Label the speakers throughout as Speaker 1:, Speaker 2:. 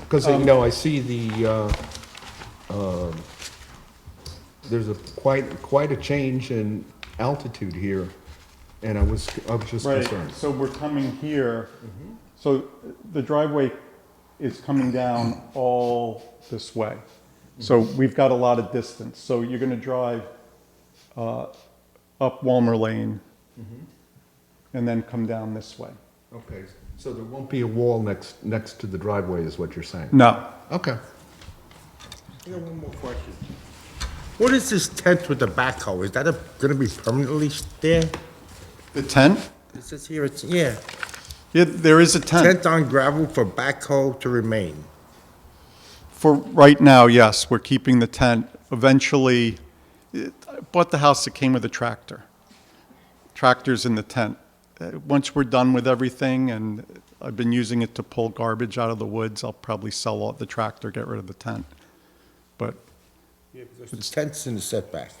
Speaker 1: Because,
Speaker 2: Um,
Speaker 1: you know, I see the, uh, um, there's a quite, quite a change in altitude here, and I was, I was just
Speaker 3: Right,
Speaker 1: concerned.
Speaker 3: so we're coming here, so the driveway is coming down all this way. So we've got a lot of distance, so you're gonna drive uh, up Walmer Lane and then come down this way.
Speaker 1: Okay, so there won't be a wall next, next to the driveway, is what you're saying?
Speaker 3: No,
Speaker 1: Okay.
Speaker 2: I got one more question. What is this tent with the backhoe? Is that a- gonna be permanently there?
Speaker 3: the tent,
Speaker 2: It says here, it's, yeah,
Speaker 3: yeah, there is a tent.
Speaker 2: tent on gravel for backhoe to remain.
Speaker 3: For right now, yes, we're keeping the tent. Eventually, it- I bought the house that came with a tractor. Tractor's in the tent. Uh, Once we're done with everything, and I've been using it to pull garbage out of the woods, I'll probably sell all the tractor, get rid of the tent. But
Speaker 2: It's tents in the setback.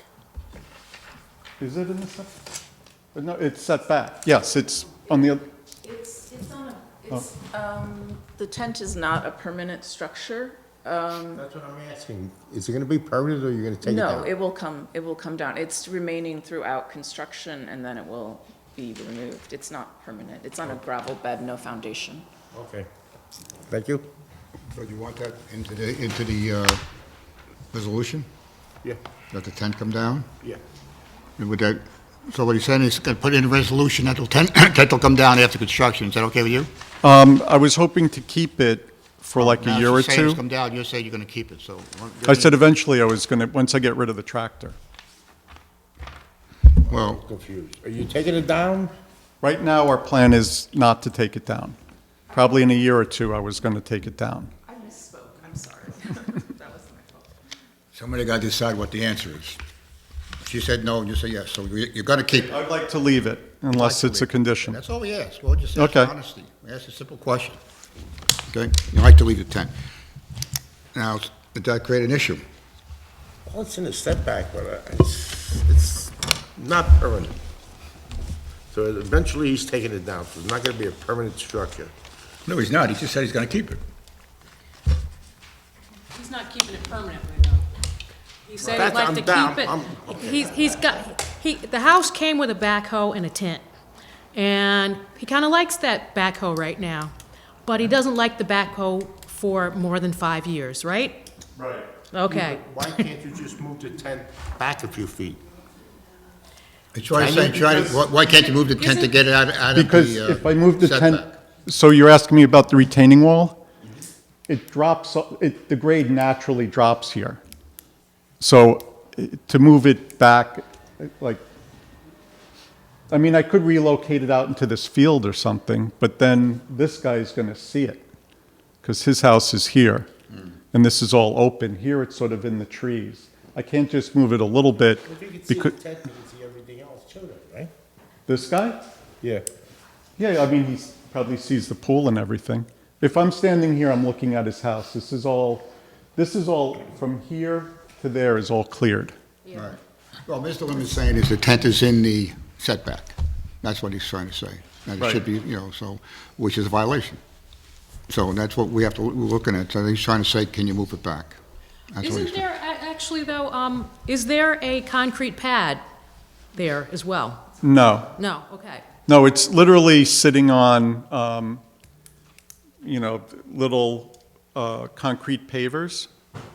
Speaker 3: is it in the set? Uh, No, it's set back. Yes, it's on the, oth-
Speaker 4: It's, it's on a,
Speaker 2: Oh.
Speaker 4: it's, um, the tent is not a permanent structure.
Speaker 2: That's what I'm asking. Is it gonna be permanent or you're gonna take it
Speaker 4: No,
Speaker 2: down?
Speaker 4: it will come, it will come down. It's remaining throughout construction and then it will be removed. It's not permanent. It's
Speaker 2: Oh.
Speaker 4: on a gravel bed, no foundation.
Speaker 2: Okay. Thank you.
Speaker 5: So you want that into the, into the uh, resolution?
Speaker 1: Yeah,
Speaker 5: Let the tent come down?
Speaker 1: yeah.
Speaker 5: And Would that, so what he's saying is gonna put in a resolution that the tent, tent will come down after construction. Is that okay with you?
Speaker 3: um, I was hoping to keep it for like a
Speaker 5: Oh, Now,
Speaker 3: year or
Speaker 5: she's saying it's
Speaker 3: two.
Speaker 5: come down, you're saying you're gonna keep it, so. why don't you-
Speaker 3: I said eventually I was gonna, once I get rid of the tractor.
Speaker 5: Well,
Speaker 2: Confused. Are you taking it down?
Speaker 3: Right now, our plan is not to take it down. Probably in a year or two, I was going to take it down.
Speaker 4: I misspoke, I'm sorry. That was my fault.
Speaker 5: somebody gotta decide what the answer is. She said no, and you say yes, so you- you're gonna keep it.
Speaker 3: I'd like to leave it unless it's a condition.
Speaker 5: That's all we ask. Well, just ask
Speaker 3: Okay.
Speaker 5: for honesty. We ask a simple question. Okay? You like to leave the tent. Now, did that create an issue?
Speaker 2: Well, it's in the setback, but uh, it's, it's not permanent. So eventually he's taking it down, so it's not gonna be a permanent structure.
Speaker 5: No, he's not. He just said he's gonna keep it.
Speaker 6: He's not keeping it permanently, though. He said
Speaker 2: That's-
Speaker 6: he'd like
Speaker 2: I'm
Speaker 6: to
Speaker 2: down.
Speaker 6: keep
Speaker 2: I'm-
Speaker 6: it. He's, he's got, he, the house came with a backhoe and a tent. And he kinda likes that backhoe right now, but he doesn't like the backhoe for more than five years, right?
Speaker 3: Right.
Speaker 6: Okay.
Speaker 2: Why can't you just move the tent back a few feet?
Speaker 5: It's why I
Speaker 2: Can
Speaker 5: said,
Speaker 2: you-
Speaker 5: try to, why- why can't you move the tent to get it out, out of the uh,
Speaker 3: Because if I move the tent,
Speaker 5: setback?
Speaker 3: so you're asking me about the retaining wall? It drops, it, the grade naturally drops here. So eh, to move it back, eh, like, I mean, I could relocate it out into this field or something, but then this guy's going to see it because his house is here
Speaker 5: Hmm.
Speaker 3: and this is all open. Here it's sort of in the trees. I can't just move it a little bit
Speaker 2: If you can see the
Speaker 3: because,
Speaker 2: tent, you can see everything else too, then, right?
Speaker 3: this guy?
Speaker 2: Yeah.
Speaker 3: Yeah, I mean, he probably sees the pool and everything. If I'm standing here, I'm looking at his house. This is all, this is all, from here to there is all cleared.
Speaker 5: Right. Well, Mr. Lim is saying is the tent is in the setback. That's what he's trying to say. And it
Speaker 3: Right.
Speaker 5: should be, you know, so, which is a violation. So that's what we have to, we're looking at. So he's trying to say, can you move it back? That's what he's
Speaker 6: Isn't
Speaker 5: saying.
Speaker 6: there, a- actually, though, um, is there a concrete pad there as well?
Speaker 3: No,
Speaker 6: No, okay.
Speaker 3: no, it's literally sitting on, um, you know, little uh, concrete pavers.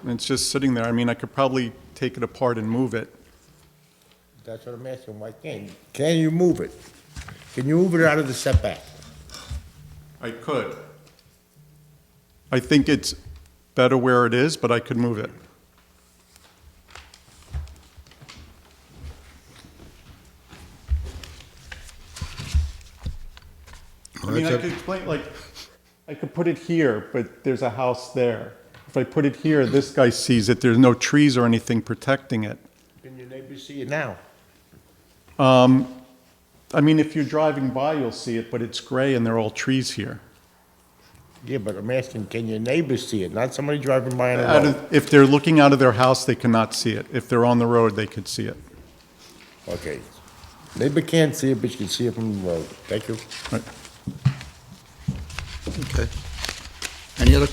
Speaker 3: And it's just sitting there. I mean, I could probably take it apart and move it.
Speaker 2: That's what I'm asking, why can't, you? can you move it? Can you move it out of the setback?
Speaker 3: I could. I think it's better where it is, but I could move it. I
Speaker 5: Well,
Speaker 3: mean, I
Speaker 5: that's
Speaker 3: could
Speaker 5: up-
Speaker 3: explain, like, I could put it here, but there's a house there. If I put it here, this guy sees it, there's no trees or anything protecting it.
Speaker 2: Can your neighbors see it now?
Speaker 3: I mean, if you're driving by, you'll see it, but it's gray and they're all trees here.
Speaker 2: Yeah, but I'm asking, can your neighbors see it, not somebody driving by on a
Speaker 3: Out
Speaker 2: road?
Speaker 3: of- If they're looking out of their house, they cannot see it. If they're on the road, they could see it.
Speaker 2: Okay. Neighbor can't see it, but you can see it from the road. Thank you.
Speaker 3: Right.
Speaker 5: Okay. Any other